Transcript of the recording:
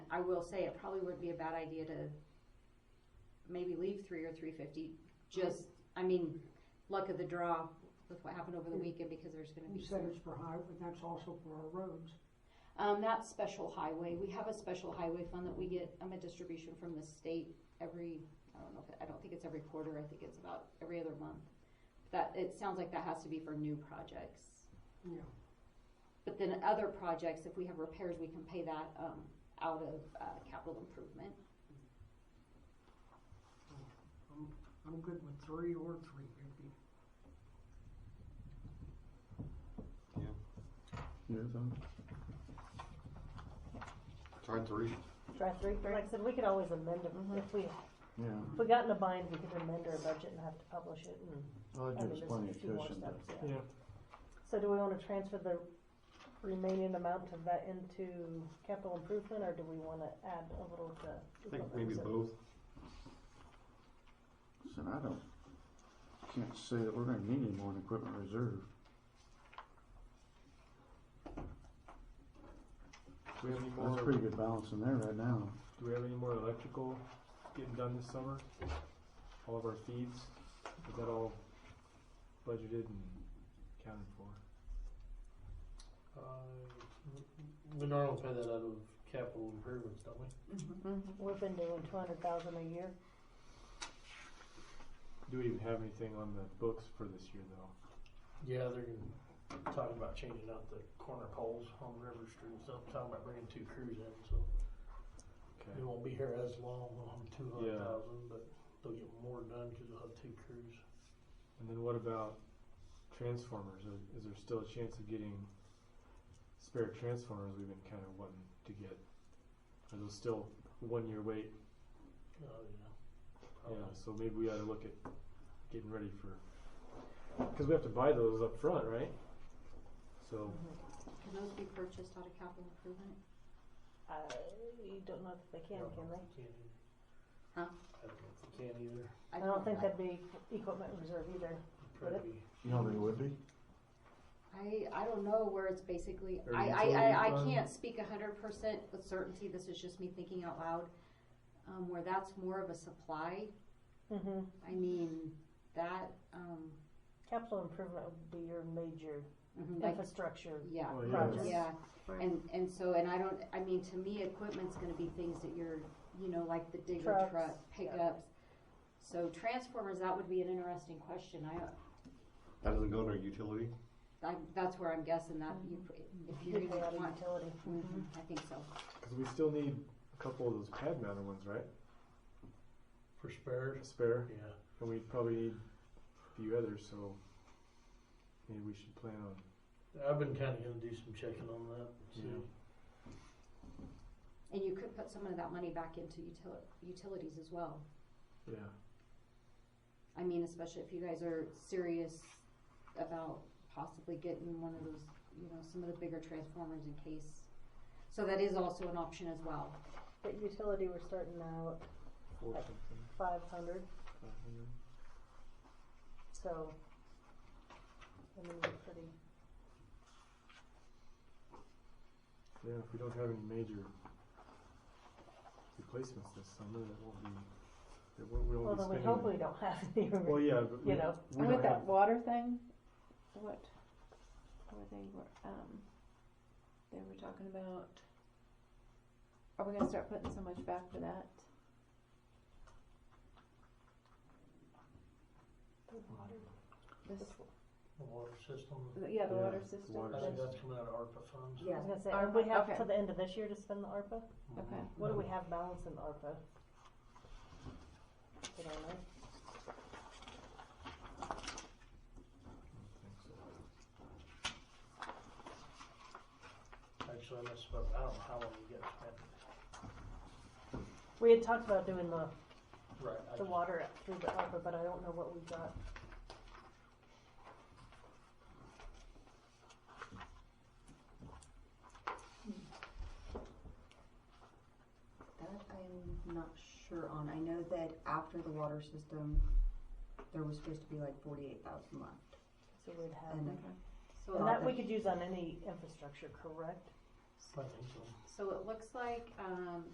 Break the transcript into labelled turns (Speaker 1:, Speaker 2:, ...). Speaker 1: I will say it probably would be a bad idea to maybe leave three or three fifty, just, I mean, luck of the draw with what happened over the weekend because there's gonna be.
Speaker 2: You said it's for high, but that's also for our roads.
Speaker 1: Um, that's special highway, we have a special highway fund that we get, um, a distribution from the state every, I don't know, if it- I don't think it's every quarter, I think it's about every other month. That, it sounds like that has to be for new projects.
Speaker 2: Yeah.
Speaker 1: But then other projects, if we have repairs, we can pay that, um, out of, uh, capital improvement.
Speaker 2: I'm, I'm good with three or three fifty.
Speaker 3: Try three.
Speaker 4: Try three, Mm-hmm. like I said, we could always amend them, if we, if
Speaker 5: Yeah,
Speaker 4: we got in a bind, we could amend our budget and have to publish it and,
Speaker 5: I
Speaker 4: I
Speaker 5: think
Speaker 4: mean,
Speaker 5: there's
Speaker 4: there's
Speaker 5: plenty
Speaker 4: a
Speaker 5: of
Speaker 4: few more
Speaker 5: cushion
Speaker 4: steps,
Speaker 5: there.
Speaker 4: yeah. So do we wanna transfer the remaining amount of that into capital improvement, or do we wanna add a little to?
Speaker 3: I think maybe both.
Speaker 5: So I don't, can't say that we're gonna need any more in equipment reserve.
Speaker 6: Do we have any
Speaker 5: That's a
Speaker 6: more,
Speaker 5: pretty good balance in there right now.
Speaker 6: do we have any more electrical getting done this summer? All of our feeds, is that all budgeted and accounted for?
Speaker 7: Uh, we normally pay that out of capital improvements, don't we?
Speaker 4: We've been doing two hundred thousand a year,
Speaker 6: Do we even have anything on the books for this year though?
Speaker 7: Yeah, they're gonna- talking about changing out the corner poles on River Street and stuff, talking about bringing two crews in, so
Speaker 6: Okay,
Speaker 7: they won't be here as long, they'll have two
Speaker 6: Yeah.
Speaker 7: hundred thousand, but they'll get more done because they'll have two crews.
Speaker 6: and then what about transformers? Is- Is there still a chance of getting spare transformers we've been kind of wanting to get? Are those still one year wait?
Speaker 7: Oh, yeah.
Speaker 6: Yeah,
Speaker 7: Probably.
Speaker 6: Oh, so maybe we ought to look at getting ready for, because we have to buy those up front, right? So,
Speaker 1: Can those be purchased out of capital improvement?
Speaker 4: I don't know if they can, can
Speaker 1: Mhm.
Speaker 7: Can't either.
Speaker 4: they?
Speaker 1: Huh?
Speaker 7: I don't know if they can either.
Speaker 4: I don't think that'd be equipment reserve either, Would it?
Speaker 7: Probably be-
Speaker 5: You know, they would be.
Speaker 1: I, I don't know where it's basically,
Speaker 6: Or
Speaker 1: I, I,
Speaker 6: utility
Speaker 1: I, I
Speaker 6: fund?
Speaker 1: can't speak a hundred percent with certainty, this is just me thinking out loud. Um, where that's more of a supply,
Speaker 4: hmm
Speaker 1: I mean, that, um,
Speaker 4: capital improvement would be your major Mm-hmm.
Speaker 1: mhm, like,
Speaker 4: infrastructure
Speaker 1: yeah,
Speaker 6: well,
Speaker 4: project.
Speaker 1: yeah. And, and so, and I don't, I mean, to me, equipment's gonna be things that you're, you know, like the digger
Speaker 4: Trucks,
Speaker 1: truck
Speaker 4: yeah.
Speaker 1: pickups. So transformers, that would be an interesting question, I,
Speaker 3: That doesn't go in our utility.
Speaker 1: I, that's where I'm guessing that
Speaker 4: Mm-hmm.
Speaker 1: you, if you're
Speaker 4: Get that out
Speaker 1: gonna
Speaker 4: of
Speaker 1: want,
Speaker 4: utility.
Speaker 1: mhm, I think so.
Speaker 6: Because we still need a couple of those pad mounted ones, right?
Speaker 7: For spares,
Speaker 6: A spare,
Speaker 7: yeah.
Speaker 6: and we probably need a few others. So maybe we should plan on.
Speaker 7: I've been kinda gonna do some checking on that,
Speaker 6: Yeah.
Speaker 7: too.
Speaker 1: And you could put some of that money back into util- utilities as well.
Speaker 6: Yeah.
Speaker 1: I mean, especially if you guys are serious about possibly getting one of those, you know, some of the bigger transformers in case. So that is also an option as well.
Speaker 4: But utility, we're starting out
Speaker 6: Four
Speaker 4: Like-
Speaker 6: something.
Speaker 4: five hundred,
Speaker 6: five hundred.
Speaker 4: so, I mean, we're pretty,
Speaker 6: Yeah. If we don't have any major replacements this summer, that won't be. That won't, we won't
Speaker 4: well,
Speaker 6: be
Speaker 4: then we
Speaker 6: spending.
Speaker 4: hope we don't have any,
Speaker 6: well, yeah, but we,
Speaker 4: you know,
Speaker 6: we don't have,
Speaker 8: water thing, what were they were um they were talking about are we gonna start putting so much back for that?
Speaker 4: the water,
Speaker 8: This
Speaker 7: The water system,
Speaker 8: yeah, the
Speaker 6: Yeah,
Speaker 8: water
Speaker 6: the
Speaker 8: system.
Speaker 6: water
Speaker 7: I think
Speaker 6: system.
Speaker 7: that's coming out of ARPA funds.
Speaker 4: yeah, I was gonna say,
Speaker 8: ARPA,
Speaker 4: we have
Speaker 8: okay.
Speaker 4: till the end of this year to spend the ARPA,
Speaker 8: Okay.
Speaker 4: what do we have balance in ARPA? I don't know,
Speaker 7: Actually, I messed up. I don't know how long you guys spent.
Speaker 4: we had talked about doing the,
Speaker 7: Right. I
Speaker 4: the
Speaker 7: just-
Speaker 4: water up through the ARPA, but I don't know what we got,
Speaker 9: That I'm not sure on. I know that after the water system, there was supposed to be like forty-eight thousand left.
Speaker 4: so we'd have,
Speaker 9: And
Speaker 1: So,
Speaker 4: and that we
Speaker 9: ARPA.
Speaker 4: could use on any infrastructure, correct?
Speaker 7: I think so.
Speaker 1: so it looks like, um,